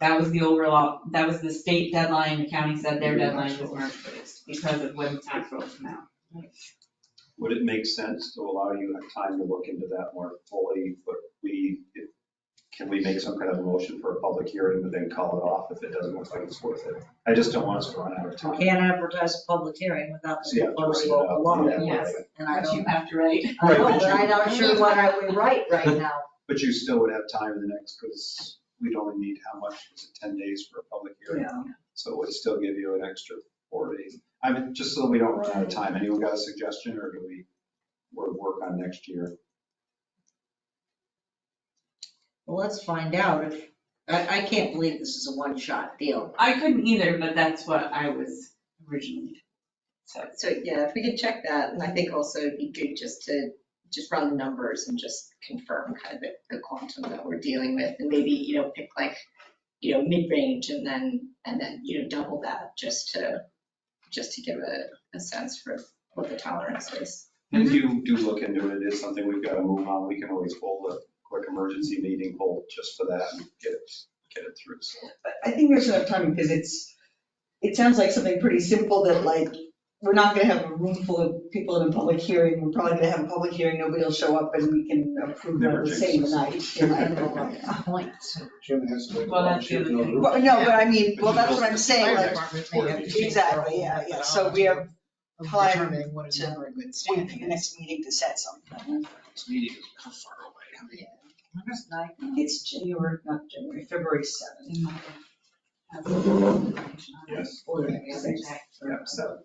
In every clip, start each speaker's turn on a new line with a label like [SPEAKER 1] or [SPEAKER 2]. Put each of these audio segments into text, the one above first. [SPEAKER 1] That was the overall, that was the state deadline, the county said their deadline was March first, because of when tax rolls come out.
[SPEAKER 2] Would it make sense to allow you time to look into that more fully, but we, if- can we make some kind of a motion for a public hearing, but then call it off if it doesn't look like it's worth it? I just don't want us to run out of
[SPEAKER 3] You
[SPEAKER 2] time.
[SPEAKER 3] can't advertise a public hearing without
[SPEAKER 2] So you
[SPEAKER 3] the
[SPEAKER 2] have to
[SPEAKER 3] proposed
[SPEAKER 2] write it up.
[SPEAKER 3] local law.
[SPEAKER 2] Yeah,
[SPEAKER 1] Yes.
[SPEAKER 2] right.
[SPEAKER 3] And I
[SPEAKER 1] But you
[SPEAKER 3] don't,
[SPEAKER 1] have to write.
[SPEAKER 3] I know,
[SPEAKER 2] Right, but
[SPEAKER 3] but I'm not sure what I would write right now.
[SPEAKER 2] But you still would have time in the next, because we'd only need how much, is it 10 days for a public hearing? So it would still give you an extra four days. I mean, just so we don't run out of time, anyone got a suggestion or do we, we'll work on next year?
[SPEAKER 3] Well, let's find out. if- I, I can't believe this is a one-shot deal.
[SPEAKER 1] I couldn't either, but that's what I was originally, so.
[SPEAKER 4] So, yeah, if we could check that, and I think also it'd be good just to, just run the numbers and just confirm kind of the- the quantum that we're dealing with, and maybe, you know, pick like, you know, mid-range and then, and then, you know, double that, just to, just to give a, a sense for what the tolerance is.
[SPEAKER 2] And
[SPEAKER 5] Mm-hmm.
[SPEAKER 2] If you do look into it, it's something we've got to move on, we can always hold a quick emergency meeting, hold just for that and get it, get it through. So
[SPEAKER 6] I- I think there's enough time because it's, it sounds like something pretty simple that like, we're not gonna have a room full of people in a public hearing. We're probably gonna have a public hearing, nobody will show up and we can approve it
[SPEAKER 2] Never
[SPEAKER 6] the same
[SPEAKER 2] jinx
[SPEAKER 6] night. you know.
[SPEAKER 3] Point.
[SPEAKER 7] Jim has to.
[SPEAKER 1] Well, that's the other thing.
[SPEAKER 6] But no, but I mean, well, that's what I'm
[SPEAKER 5] Fire
[SPEAKER 6] saying, like,
[SPEAKER 5] department may have to change their
[SPEAKER 6] exactly,
[SPEAKER 5] whole
[SPEAKER 6] yeah, yeah. So we have
[SPEAKER 5] methodology of
[SPEAKER 6] time
[SPEAKER 5] determining what is
[SPEAKER 6] to
[SPEAKER 5] never a good
[SPEAKER 6] wait for
[SPEAKER 5] standing
[SPEAKER 6] the
[SPEAKER 5] is.
[SPEAKER 6] next meeting to set something.
[SPEAKER 2] This meeting is kind of far away.
[SPEAKER 6] It's January, not January, February 7th.
[SPEAKER 2] Yes,
[SPEAKER 6] or
[SPEAKER 2] yeah, so.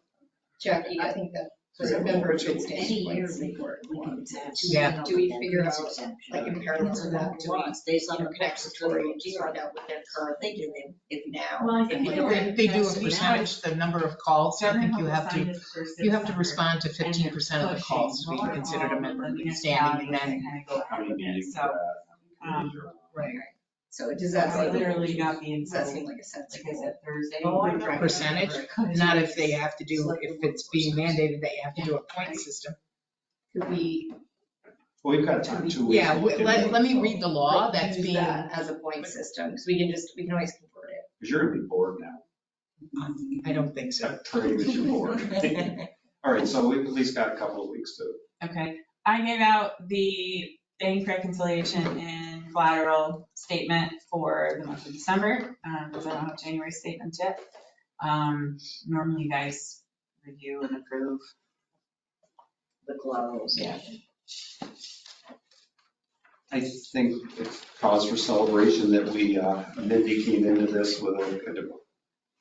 [SPEAKER 4] Jackie, I think that
[SPEAKER 2] was a member of good
[SPEAKER 4] standing points
[SPEAKER 5] Yeah.
[SPEAKER 4] Do we figure out, like, in parallel to that, do we,
[SPEAKER 3] Based on
[SPEAKER 4] you
[SPEAKER 3] the
[SPEAKER 4] know, connect the story, and just find out what they're currently
[SPEAKER 3] They do, they, if now.
[SPEAKER 1] Well, I
[SPEAKER 4] think
[SPEAKER 5] If They they do a percentage, the number of calls, I think you have to, you have to respond to fifteen percent of the calls to be considered a member of good standing, and then.
[SPEAKER 2] How many meetings?
[SPEAKER 1] So,
[SPEAKER 2] for that?
[SPEAKER 1] um,
[SPEAKER 5] Right.
[SPEAKER 4] so does that
[SPEAKER 1] I
[SPEAKER 4] seem,
[SPEAKER 1] literally got the
[SPEAKER 4] does that
[SPEAKER 1] info,
[SPEAKER 4] seem like a sense?
[SPEAKER 1] like I said, Thursday.
[SPEAKER 3] Oh, I know.
[SPEAKER 5] Percentage, not if they have to do, if it's being mandated that you have to do a point system.
[SPEAKER 4] Could we
[SPEAKER 2] Well, we've got time, two weeks.
[SPEAKER 5] Yeah, we- let, let me read the law
[SPEAKER 4] like,
[SPEAKER 5] that's
[SPEAKER 4] use
[SPEAKER 5] being,
[SPEAKER 4] that As a point system, because we can just, we can always convert it.
[SPEAKER 2] Because you're going to be bored now.
[SPEAKER 5] I don't think so.
[SPEAKER 2] I pray that you're bored. All right, so we've at least got a couple of weeks to
[SPEAKER 1] Okay, I gave out the bank reconciliation and collateral statement for the month of December, because I don't have January statements yet. Um, Normally you guys review and approve.
[SPEAKER 3] The glows.
[SPEAKER 1] Yeah.
[SPEAKER 2] I think it's cause for celebration that we, uh, Mindy came into this with a,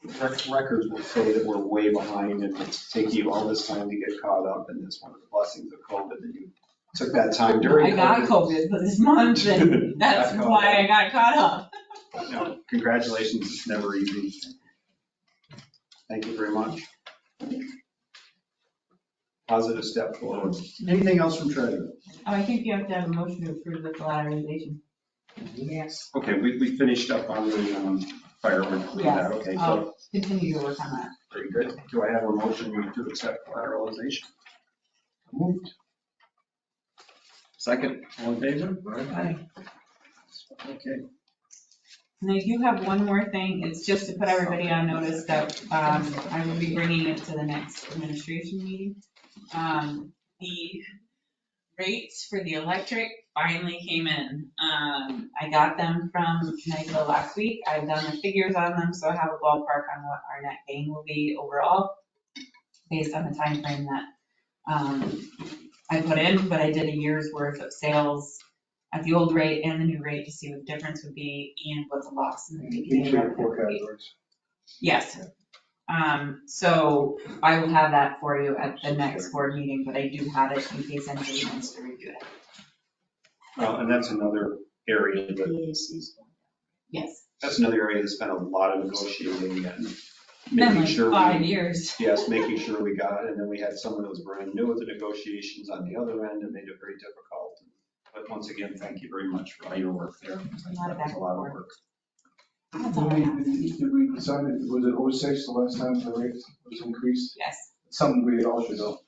[SPEAKER 2] a- rec- records will say that we're way behind and it's taking you all this time to get caught up and it's one of the blessings of COVID that you took that time
[SPEAKER 1] I
[SPEAKER 2] during.
[SPEAKER 1] got
[SPEAKER 2] COVID.
[SPEAKER 1] COVID for this month, and that's
[SPEAKER 2] Got caught
[SPEAKER 1] why I
[SPEAKER 2] up.
[SPEAKER 1] got caught up.
[SPEAKER 2] No, Congratulations, it's never easy. Thank you very much. Positive step forward. Anything else from treasurer?
[SPEAKER 1] Oh, I think you have to have a motion to approve the collateralization.
[SPEAKER 3] Yes.
[SPEAKER 2] Okay, we, we finished up on the um, fireworks.
[SPEAKER 1] Yes. Um,
[SPEAKER 2] Okay, so
[SPEAKER 1] I'll continue to work on that.
[SPEAKER 2] Very good. Do I have a motion to accept collateralization? Moved. Second, all in favor? Okay.
[SPEAKER 1] And I do have one more thing, it's just to put everybody on notice that um, I will be bringing it to the next administration meeting. Um, The rates for the electric finally came in. Um, I got them from NICO last week, I've done the figures on them, so I have a ballpark on what our net gain will be overall, based on the time frame that um, I put in, but I did a year's worth of sales at the old rate and the new rate to see what the difference would be and what the loss in the beginning.
[SPEAKER 7] Each of your
[SPEAKER 1] revenue
[SPEAKER 7] four
[SPEAKER 1] would be.
[SPEAKER 7] categories.
[SPEAKER 1] Yes. Um, so I will have that for you at the next board meeting, but I do have it in case anybody wants to review it.
[SPEAKER 2] Well, and that's another area that,
[SPEAKER 1] Yes.
[SPEAKER 2] that's another area that's been a lot of negotiating and
[SPEAKER 1] Been
[SPEAKER 2] making
[SPEAKER 1] like
[SPEAKER 2] sure. we-
[SPEAKER 1] five years.
[SPEAKER 2] Yes, making sure we got it. And then we had someone that was brand new at the negotiations on the other end and made it very difficult. But once again, thank you very much for all your work there.
[SPEAKER 1] lot of
[SPEAKER 2] That was a lot of work.
[SPEAKER 1] That's all I have.
[SPEAKER 7] Did we decide, it- was it 06 the last time the rate was increased?
[SPEAKER 1] Yes,
[SPEAKER 7] Something we all should know.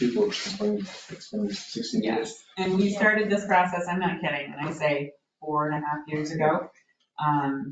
[SPEAKER 7] People have complained, it's been 16 years.
[SPEAKER 1] yes. And we started this process, I'm not kidding, when I say four and a half years ago. Um,